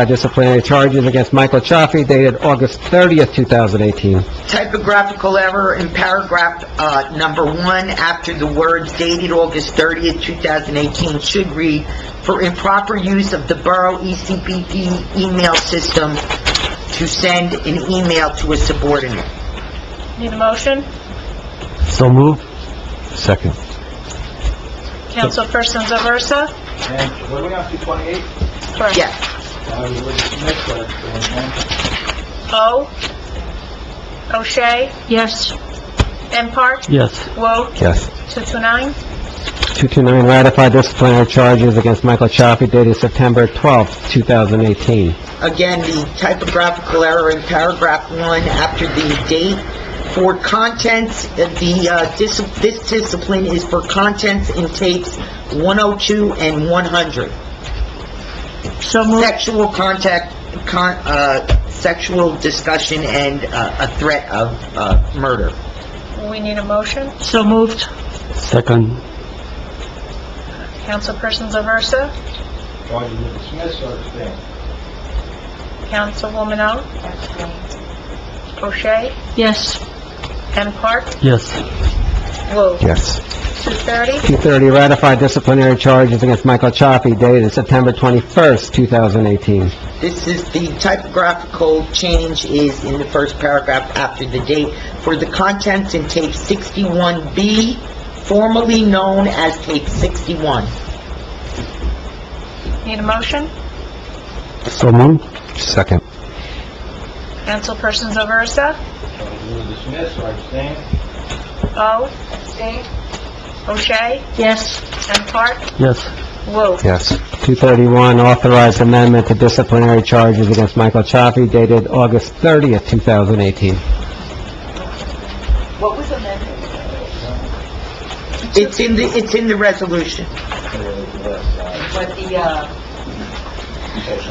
uh, disciplinary charges against Michael Chaffee dated August 30th, 2018. Typographical error in paragraph, uh, number one, after the words dated August 30th, 2018 should read, "For improper use of the Borough E ECPD email system to send an email to a subordinate." Need a motion? So moved. Second. Councilperson Zaversa? And what do we have to 28? Correct. Yes. I would missed that. O? O'Shea? yes, M. Park? Yes. Wo? Yes. 229? 229, ratify disciplinary charges against Michael Chaffee dated September 12th, 2018. Again, the typographical error in paragraph one after the date. For contents, uh, the, uh, dis- this discipline is for contents in tapes 102 and 100. so moved, Sexual contact, con, uh, sexual discussion and, uh, a threat of, uh, murder. We need a motion? so moved, Second. Councilperson Zaversa? Or you would dismiss or abstain? Councilwoman O? O'Shea? yes, M. Park? Yes. Wo? Yes. 230? 230, ratify disciplinary charges against Michael Chaffee dated September 21st, 2018. This is, the typographical change is in the first paragraph after the date for the contents in tape 61B, formerly known as tape 61. Need a motion? So moved. Second. Councilperson Zaversa? Or you would dismiss or abstain? O? O'Shea? yes, M. Park? Yes. Wo? Yes. 231, authorized amendment to disciplinary charges against Michael Chaffee dated August 30th, 2018. It's in the, it's in the resolution.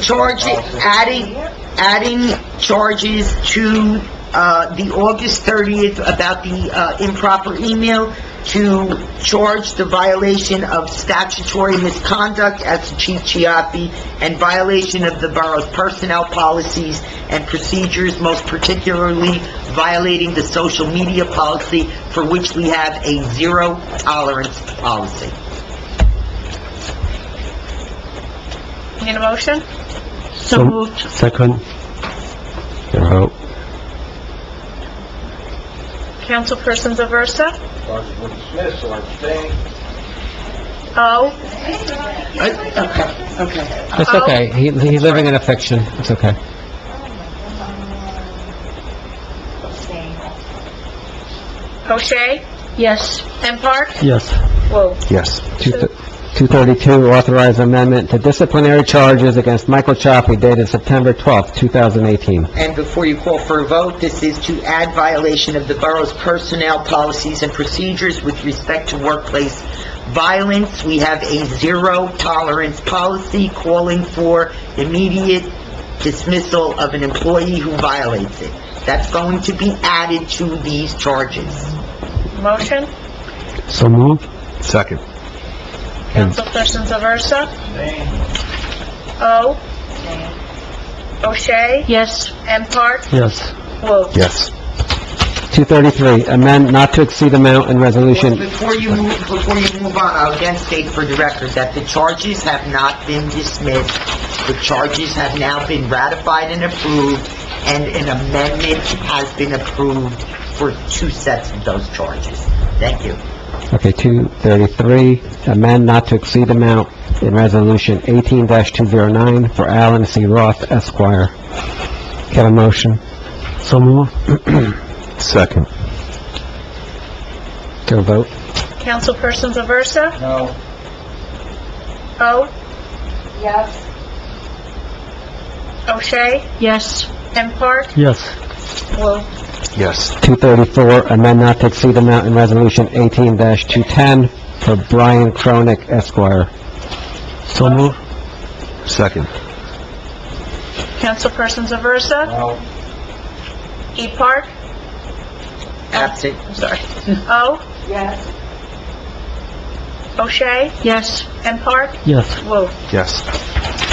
Charge, adding, adding charges to, uh, the August 30th about the, uh, improper email to charge the violation of statutory misconduct as to Chief Chiappi and violation of the borough's personnel policies and procedures, most particularly violating the social media policy for which we have a zero tolerance policy. Need a motion? so moved, Second. Councilperson Zaversa? Or you would dismiss or abstain? O? Okay, okay. It's okay, he, he's living in a fiction, it's okay. O'Shea? yes, M. Park? Yes. Whoa. Yes. 232, authorized amendment to disciplinary charges against Michael Chaffee dated September 12th, 2018. And before you call for a vote, this is to add violation of the borough's personnel policies and procedures with respect to workplace violence. We have a zero tolerance policy calling for immediate dismissal of an employee who violates it. That's going to be added to these charges. Motion? So moved. Second. Councilperson Zaversa? Abstain? O? O'Shea? yes, M. Park? Yes. Whoa. Yes. 233, amend not to exceed amount in resolution, Before you move, before you move on, I'll again state for the record that the charges have not been dismissed. The charges have now been ratified and approved, and an amendment has been approved for two sets of those charges. Thank you. okay, 233, amend not to exceed amount in resolution 18-209 for Alan C. Roth Esquire. Get a motion? So moved. Second. Go vote. Councilperson Zaversa? No. O? Yes. O'Shea? yes, M. Park? Yes. Whoa. Yes. 234, amend not to exceed amount in Resolution 18-210 for Brian Cronick Esquire. So moved. Second. Councilperson Zaversa? No. E. Park? Absent. I'm sorry. O? Yes. O'Shea? yes, M. Park? Yes. Whoa. Yes.